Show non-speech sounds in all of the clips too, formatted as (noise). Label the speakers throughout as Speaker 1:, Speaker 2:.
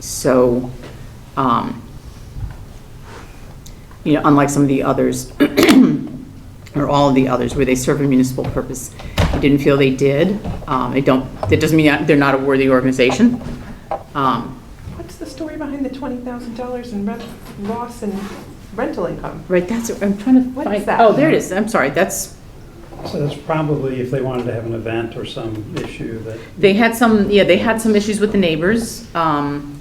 Speaker 1: So, um, you know, unlike some of the others, (clears throat) or all of the others, where they serve a municipal purpose, I didn't feel they did. Um, I don't, that doesn't mean they're not a worthy organization. Um,
Speaker 2: What's the story behind the $20,000 in rent loss and rental income?
Speaker 1: Right, that's, I'm trying to
Speaker 2: What
Speaker 1: find,
Speaker 2: is that?
Speaker 1: oh, there it is, I'm sorry, that's,
Speaker 3: So that's probably if they wanted to have an event or some issue that.
Speaker 1: they had some, yeah, they had some issues with the neighbors. um,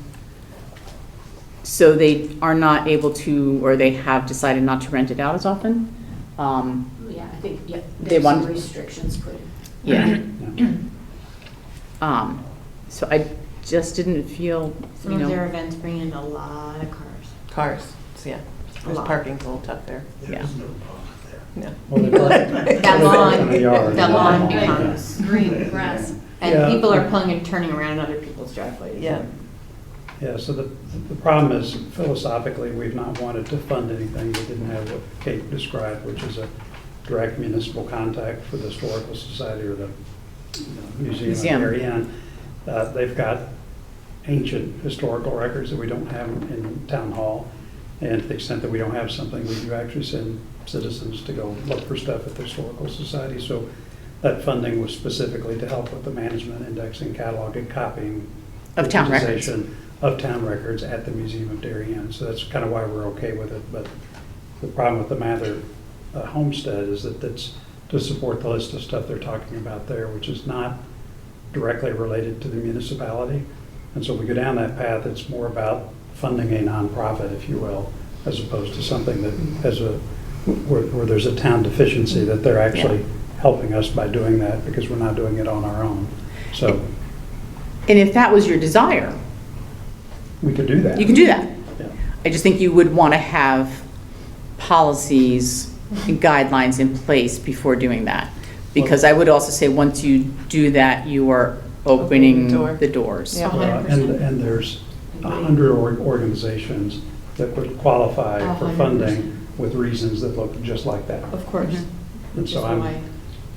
Speaker 1: So they are not able to, or they have decided not to rent it out as often. Um,
Speaker 4: Oh, Yeah, I think, yeah,
Speaker 1: They
Speaker 4: there's some
Speaker 1: want-
Speaker 4: restrictions put
Speaker 1: (laughs)
Speaker 4: in.
Speaker 3: (clears throat)
Speaker 1: Yeah.
Speaker 3: Yeah.
Speaker 1: Um, So I just didn't feel,
Speaker 5: Some
Speaker 1: you
Speaker 5: of their
Speaker 1: know,
Speaker 5: events bring in a lot of cars.
Speaker 2: Cars, so, yeah. There's
Speaker 5: lot.
Speaker 2: parking's a little tough there.
Speaker 1: yeah.
Speaker 2: Yeah.
Speaker 3: Well,
Speaker 5: (laughs)
Speaker 3: they-
Speaker 5: (laughs) That lawn,
Speaker 3: They are.
Speaker 5: that lawn
Speaker 3: Yeah.
Speaker 5: becomes green grass,
Speaker 3: Yeah.
Speaker 5: and people are pulling and turning around in other people's driveways.
Speaker 2: Yeah.
Speaker 3: Yeah, so the, the problem is philosophically, we've not wanted to fund anything that didn't have what Kate described, which is a direct municipal contact with the Historical Society or the you know, Museum
Speaker 1: Museum.
Speaker 3: of Mary Ann. Uh, They've got ancient historical records that we don't have in town hall. And to the extent that we don't have something, we do actually send citizens to go look for stuff at the Historical Society. So that funding was specifically to help with the management, indexing, cataloging, copying.
Speaker 1: Of town records.
Speaker 3: digitization Of town records at the Museum of Darien. So that's kind of why we're okay with it. But the problem with the Mather uh, Homestead is that that's to support the list of stuff they're talking about there, which is not directly related to the municipality. And so we go down that path, it's more about funding a nonprofit, if you will, as opposed to something that has a, where, where there's a town deficiency, that they're actually helping us by doing that, because we're not doing it on our own. So
Speaker 1: And if that was your desire,
Speaker 3: we could do that.
Speaker 1: you can do that.
Speaker 3: Yeah.
Speaker 1: I just think you would want to have policies and guidelines in place before doing that. Because I would also say, once you do that, you are opening
Speaker 2: Opening the door.
Speaker 1: the doors.
Speaker 2: Yeah.
Speaker 3: Uh, And, and there's a hundred org- organizations that would qualify
Speaker 5: A
Speaker 3: for
Speaker 5: hundred percent.
Speaker 3: funding with reasons that look just like that.
Speaker 5: Of course,
Speaker 1: Mhm.
Speaker 3: And
Speaker 5: which is
Speaker 3: so I'm,
Speaker 5: why,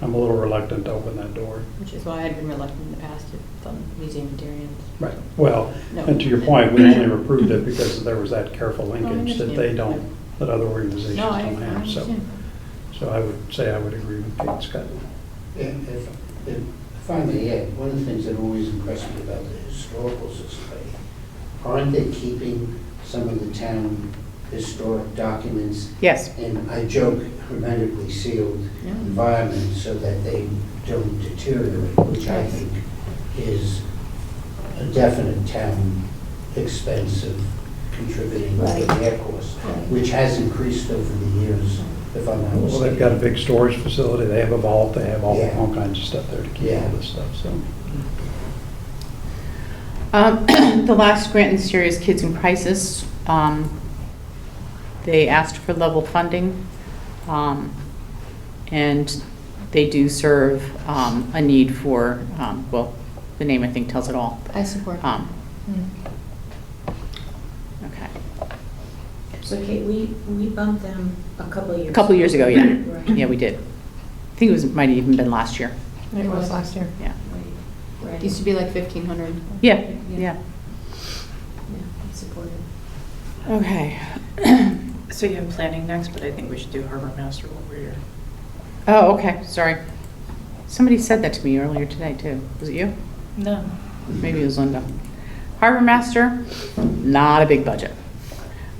Speaker 3: I'm a little reluctant to open that door.
Speaker 5: which is why I'd been reluctant in the past to fund museum of Darien.
Speaker 3: Right, well,
Speaker 5: No.
Speaker 3: and to your point, we only approved it because there was that careful
Speaker 5: I
Speaker 3: linkage that they
Speaker 5: understand.
Speaker 3: don't, that other organizations
Speaker 5: No, I, I
Speaker 3: don't have, so.
Speaker 5: understand.
Speaker 3: So I would say I would agree with Kate Scott.
Speaker 6: If, if, if if I may add, one of the things that always impressed me about the historical society, aren't they keeping some of the town historic documents
Speaker 1: Yes.
Speaker 6: in, I joke, hermetically sealed
Speaker 5: Yeah.
Speaker 6: environment so that they don't deteriorate, which I think is a definite town expense of contributing to
Speaker 5: Right.
Speaker 6: their cost, which has increased over the years, if I'm not
Speaker 3: Well, they've
Speaker 6: mistaken.
Speaker 3: got a big storage facility, they have a vault, they have all,
Speaker 6: Yeah.
Speaker 3: all kinds of stuff there to keep all
Speaker 6: Yeah.
Speaker 3: this stuff, so.
Speaker 1: Um, (clears throat) The last grant in serious kids in crisis, um, they asked for level funding, um, and they do serve um, a need for, um, well, the name I think tells it all.
Speaker 5: I support.
Speaker 1: Um,
Speaker 5: Mm.
Speaker 1: Okay,
Speaker 4: So Kate, we, we bumped them a couple of years.
Speaker 1: a couple years ago, yeah,
Speaker 4: Right.
Speaker 1: yeah, we did. I think it was, might have even been last year,
Speaker 2: It was last year.
Speaker 1: yeah,
Speaker 4: Right,
Speaker 5: It used to be like fifteen hundred.
Speaker 1: yeah, yeah.
Speaker 4: yeah, supported.
Speaker 1: Okay,
Speaker 7: (clears throat) So you have planning next, but I think we should do harbor master while we're here.
Speaker 1: oh, okay, sorry. Somebody said that to me earlier today, too. Was it you?
Speaker 7: No.
Speaker 1: maybe it was Linda. Harbor Master, not a big budget.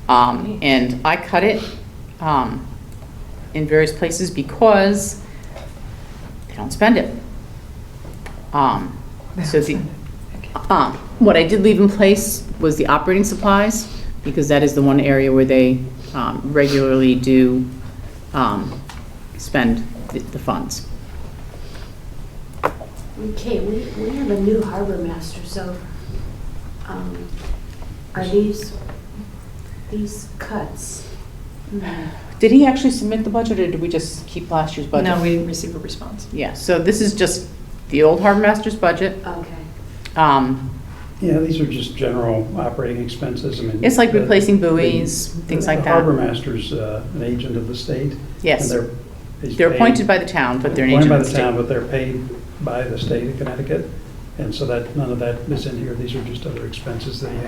Speaker 1: Um, and I cut it, um, in various places because they don't spend it. Um, so the, um, what I did leave in place was the operating supplies, because that is the one area where they, um, regularly do, um, spend the- the funds.
Speaker 4: Okay, we, we have a new harbor master, so, um, are these, these cuts? hmm,
Speaker 1: Did he actually submit the budget, or did we just keep last year's budget?
Speaker 7: No, we didn't receive a response.
Speaker 1: Yeah, so this is just the old harbor master's budget.
Speaker 4: Okay.
Speaker 1: Um,
Speaker 3: Yeah, these are just general operating expenses, I mean.
Speaker 1: It's like
Speaker 3: the-
Speaker 1: replacing buoys,
Speaker 3: the-
Speaker 1: things
Speaker 3: the
Speaker 1: like that.
Speaker 3: harbor master's uh, an agent of the state.
Speaker 1: Yes.
Speaker 3: and he's
Speaker 1: They're
Speaker 3: paid-
Speaker 1: appointed by the town, but they're an
Speaker 3: appointed
Speaker 1: agent
Speaker 3: by
Speaker 1: of the
Speaker 3: town,
Speaker 1: state.
Speaker 3: but they're paid by the state of Connecticut, and so that, none of that is in here, these are just other expenses that he